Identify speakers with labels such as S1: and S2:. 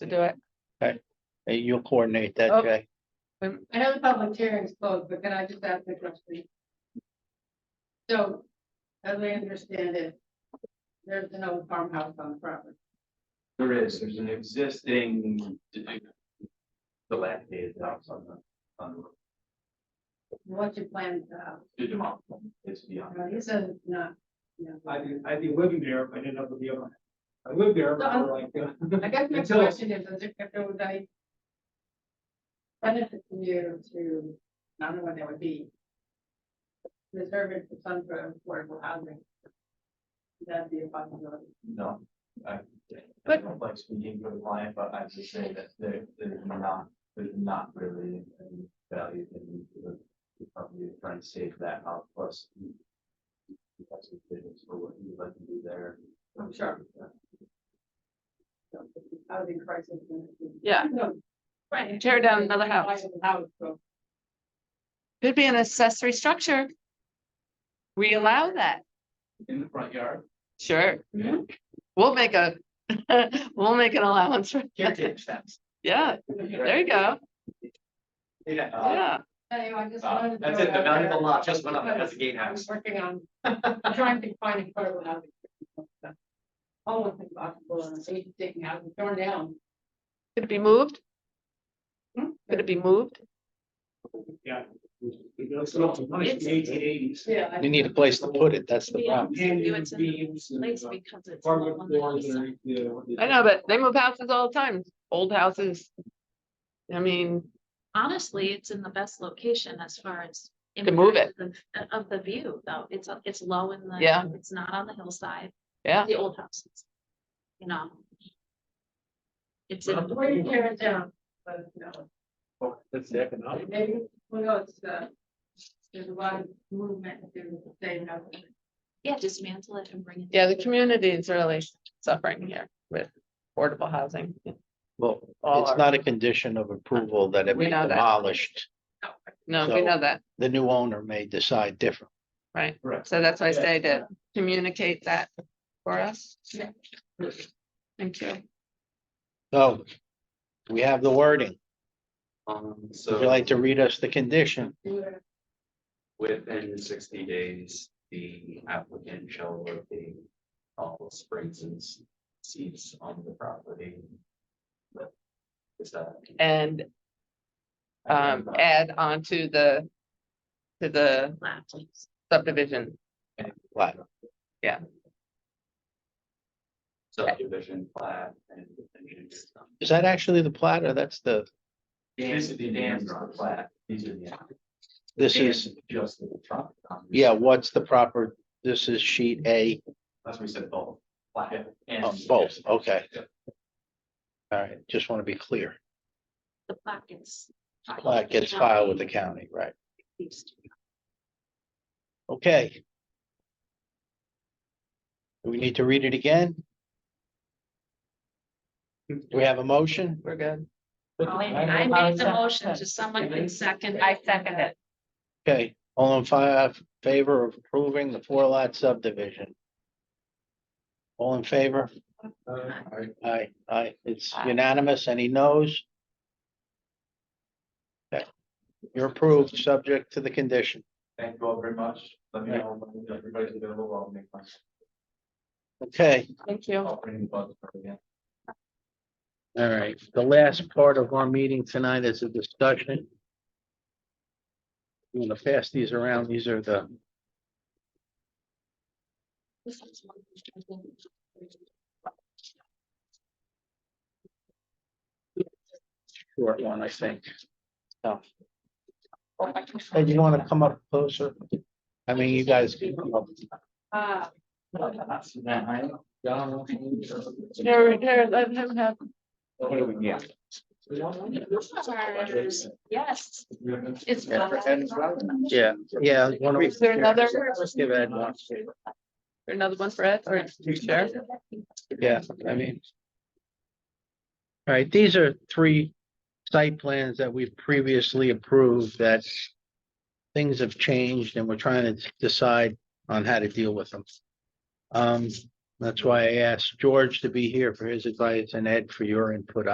S1: do it.
S2: Hey, You'll coordinate
S1: Oh.
S2: that, Jay.
S1: Um,
S3: I know the public hearing's closed, but can I just ask a question? So, as I understand it, there's an old farmhouse on the property.
S4: There is, there's an existing. Dilapidated house on the, on the, road.
S3: What's your plan, uh,
S4: to demolish, them, it's beyond.
S3: he says it's not, you know.
S5: I've been, I've been living there, but I didn't have the deal on it. I lived there, but we're like,
S3: I guess my
S5: Until-
S3: question is, is it if there was a benefit to you to, I don't know what that would be, reserve it for some sort of affordable housing? That'd be a possibility.
S4: No, I. I
S1: But-
S4: don't like speaking for the client, but I just say that there, there's not, there's not really any value in the. the Company trying to save that house plus. That's the business for what you'd like to do there.
S3: I'm sure. Housing crisis.
S1: Yeah.
S3: No,
S1: Right, tear down another house.
S3: House, so.
S1: Could be an accessory structure. We allow that,
S4: In the front yard.
S1: sure. We'll make a, we'll make an allowance for that. Yeah, there you go.
S4: Yeah.
S1: Yeah,
S3: Anyway, I just
S4: Uh,
S3: wanted to.
S4: that's
S3: throw
S4: it, the
S3: out
S4: valuable
S3: there
S4: lot just went up
S3: because
S4: as a gatehouse.
S3: I'm Working on, I'm trying to find a part of housing. Almost impossible, and they taking out, torn down.
S1: could it be moved?
S3: Hmm?
S1: Could it be moved?
S5: yeah. It's lots of money,
S6: It's-
S5: eighteen eighties.
S3: Yeah. I-
S2: You need a place to put it, that's the
S6: Yeah.
S2: problem.
S6: Do
S5: Hanging
S6: it to the
S5: beams
S6: place
S5: and
S6: because it's. all
S5: apartment
S6: on the
S5: floors
S6: east side.
S5: and. you know,
S1: I know, but they move houses all the time, old houses. I mean,
S6: Honestly, it's in the best location as far as.
S1: To move
S6: impact of the- Of the view, though, it's, it's low in the.
S1: Yeah.
S6: It's not on the hillside,
S1: yeah,
S6: the old houses. You know. It's in,
S3: Where you tear it down, but no,
S5: That's the economic.
S3: maybe, who knows, uh, there's a lot of movement to the same housing.
S6: yeah, dismantle it and bring it.
S1: yeah, the community is really suffering here with affordable housing.
S2: Well,
S1: All
S2: it's
S1: our-
S2: not a condition of approval that it
S1: We
S2: be
S1: know that.
S2: demolished.
S1: No, we know that,
S2: The new owner may decide different.
S1: right?
S4: Correct.
S1: So that's why I say to communicate that for us.
S3: Yeah.
S1: Thank you.
S2: So we have the wording.
S4: Um, so.
S2: Would you like to read us the condition?
S4: Within sixty days, the applicant shall locate all springs and s- seeds on the property. But Is that?
S1: And um add on to the. To the
S6: flat, please.
S1: subdivision,
S2: What?
S4: Subdivision plat and. and it's, um,
S2: Is that actually the plat or that's the,
S4: These are the dams on the plat, these are the.
S2: this is,
S4: dams Just the property.
S2: yeah, what's the proper, this is sheet A.
S4: That's what we said both. Plat and.
S2: Oh, both, okay.
S4: Yep.
S2: All right, just want to be clear.
S6: The plaque gets. filed
S2: Plat
S6: with the
S2: gets filed with the
S6: county.
S2: county, right? Okay. Do we need to read it again? Do we have a motion?
S1: we're good.
S6: Oh, I made the motion to someone can second. I second it.
S2: Okay, all in fi- uh, favor of approving the four lot subdivision? All in favor? Aye, aye, it's
S1: Aye.
S2: unanimous, any noes? Okay. You're approved, subject to the condition.
S4: Thank you all very much. Let me know when everybody's available. I'll make my.
S2: Okay,
S1: Thank you.
S4: I'll bring the buzzer again.
S2: all right, the last part of our meeting tonight is a discussion. You want to pass these around, these are the, short one, I think. Oh. So.
S4: Oh,
S2: Hey, you wanna come up closer? I mean, you guys. can come up.
S3: Uh,
S1: Here, here, let him have.
S6: Yes. It's.
S2: Yeah,
S4: for Adam's Robin.
S2: Yeah, yeah. one of-
S1: Is there another, is
S2: Let's give Ed one.
S1: there another one for Ed or share?
S2: Yeah, I mean. All right, these are three site plans that we've previously approved that. Things have changed and we're trying to decide on how to deal with them. Um, that's why I asked George to be here for his advice and Ed for your input